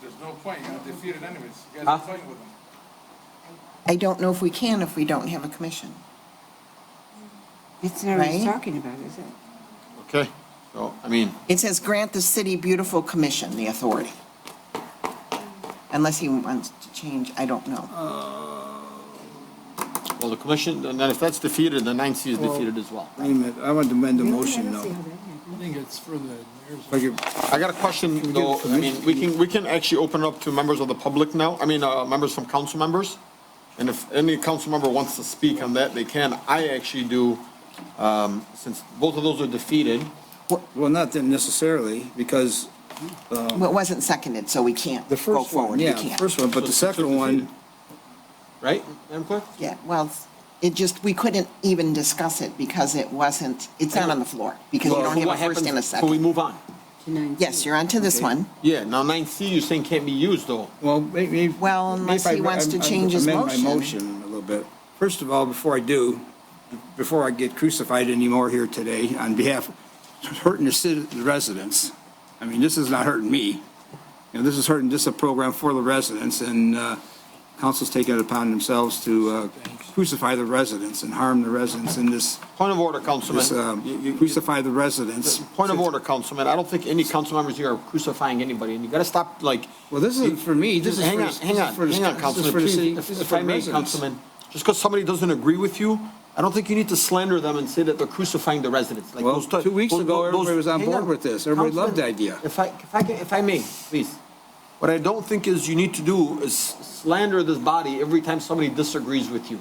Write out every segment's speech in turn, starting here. There's no point, you're gonna defeat it anyways. You guys Huh? are playing with them. I don't know if we can if we don't have a commission. It's not what he's Right? talking about, is it? Okay, so, I mean, It says grant the city beautiful commission the authority. Unless he wants to change, I don't Oh. know. well, the commission, and then if that's defeated, then nine C is Well- defeated as well. Wait a minute, I want to amend the Really? I motion don't see now. how that happened. I think it's for the mayor's. Like, if- I got a question we get though, I mean, permission? we can, we can actually open up to members of the public now, I mean, uh, members from council members. And if any council member wants to speak on that, they can. I actually do, um, since both of those are defeated, well, not that necessarily, because Well, it wasn't seconded, so we can't the go first one, forward. We yeah, the can't. first one, but the second one, right, Madam Clerk? Yeah, well, it just, we couldn't even discuss it because it wasn't, it's not on the floor because you So don't have what a first happens- and a So we second. move on. To 9C. Yes, you're on to this one. Yeah, now nine C you're saying can't be used though. well, maybe. Well, unless he wants to change his Amend my motion a little bit. First of all, before I do, before I get crucified anymore here today, on behalf, hurting the citi- the residents, I mean, this is not hurting me. You know, this is hurting just a program for the residents, and uh, council's taking it upon themselves to uh, crucify the residents and harm the residents in this, Point of order, this, Councilman. You- you- um, crucify the residents. Point of order, Councilman. I don't think any council members here are crucifying anybody, and you gotta stop, like. Well, this isn't for me, this is for Hang the- on, this hang is on, for the- hang on, this is Councilman, for the please, city- if- this is if for I may, residents. Councilman, just because somebody doesn't agree with you, I don't think you need to slander them and say that they're crucifying the residents. Like Well, those two weeks those- ago, those- everybody was on hang board with this. Everybody loved the Councilman, idea. If I, if I can, if I may, please. What I don't think is you need to do is slander this body every time somebody disagrees with you.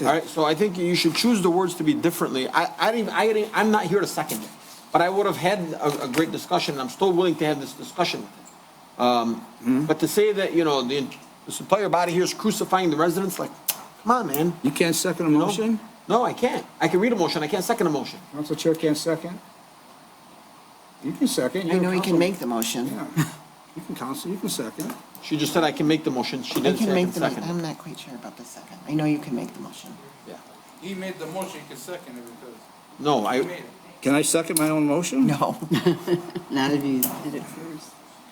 All right, so I think you should choose the words to be differently. I, I didn't, I didn't, I'm not here to second it, but I would have had a, a great discussion, and I'm still willing to have this discussion with it. Um, but to say that, you know, the, this entire body here is crucifying the residents, like, come on, man. You can't second a you know? motion? No, I can't. I can read a motion, I can't second a motion. Council chair can't second? You can second. I you're know he can council- make the motion. Yeah. You can counsel, you can second. She just said I can make the motion, she I didn't say can I make can the, mo- second. I'm it. not quite sure about the second. I know you can make the motion. Yeah. He made the motion, you can second it because No, he I, made it. Can I second my own motion? No. Not if you did it first.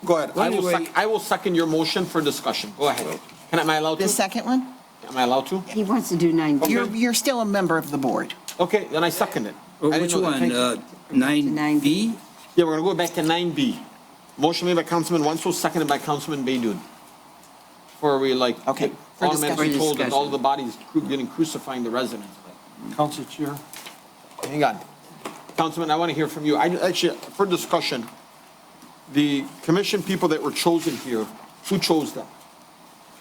go ahead, I will Anyway- sec, I will second your motion for discussion, go ahead. Can, I- am I allowed The to? second one? Am I allowed to? He wants to do 9D. You're, you're still a member of the board. Okay, then I second it. Or I didn't Which know that. one, Thank you. uh, nine B? Yeah, we're gonna go back to nine B. Motion made by Councilman Wenzel, seconded by Councilman Baydun. Where we like. Okay, for Automatically discussion. told that all the Discussion. bodies cru- getting crucifying the residents. Council chair. Hang on. Councilman, I want to hear from you. I, actually, for discussion, the commission people that were chosen here, who chose them?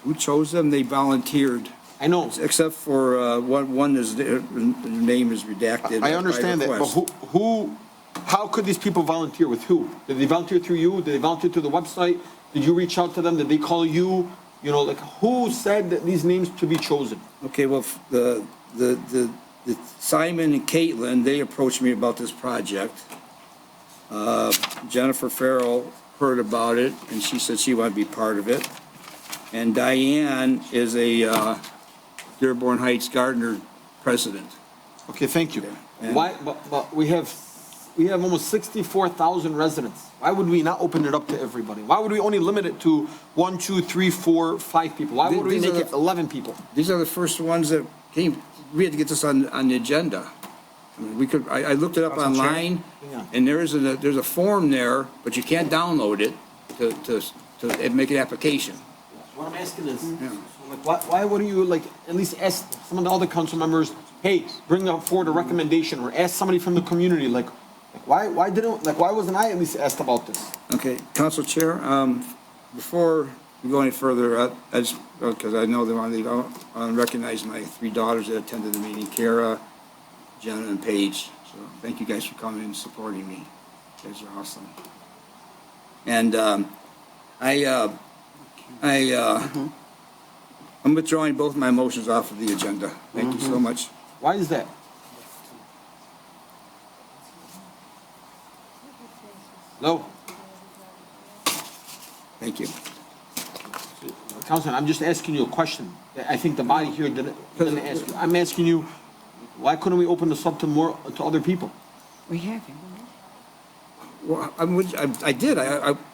Who chose them? They volunteered, I know, except for, uh, one, one is, their name is redacted. I understand that, but who, who, how could these people volunteer with who? Did they volunteer through you? Did they volunteer through the website? Did you reach out to them? Did they call you? You know, like, who said that these names to be chosen? Okay, well, f- the, the, the- the Simon and Caitlin, they approached me about this project. Uh, Jennifer Farrell heard about it, and she said she wanted to be part of it. And Diane is a uh, Dearborn Heights Gardener president. Okay, thank you. Yeah. Why, but, but we have, we have almost sixty-four thousand residents. Why would we not open it up to everybody? Why would we only limit it to one, two, three, four, five people? Why Th- would we these are make it the- eleven people? These are the first ones that came, we had to get this on, on the agenda. I mean, We could, I, I looked it up Council Chair? online, Yeah. and there is, a- there's a form there, but you can't download it to, to, to make an application. What I'm asking is, so, like, why, why wouldn't you, like, at least ask some of the other council members, hey, bring up forward a recommendation, or ask somebody from the community, like, like, why, why didn't, like, why wasn't I at least asked about this? Okay, Council Chair, um, before we go any further, I, I just, because I know they want to leave, I want to recognize my three daughters that attended the meeting, Kara, Jenna, and Paige. So thank you guys for coming and supporting me. You guys are awesome. And, um, I, uh, I, uh, I'm withdrawing both my motions off of the agenda. Thank you so much. Why is that? No, Thank you. Councilman, I'm just asking you a question. I think the body here didn't, didn't ask you. I'm asking you, why couldn't we open this up to more, to other people? We have him. Well, I'm, with- I, I did, I, I,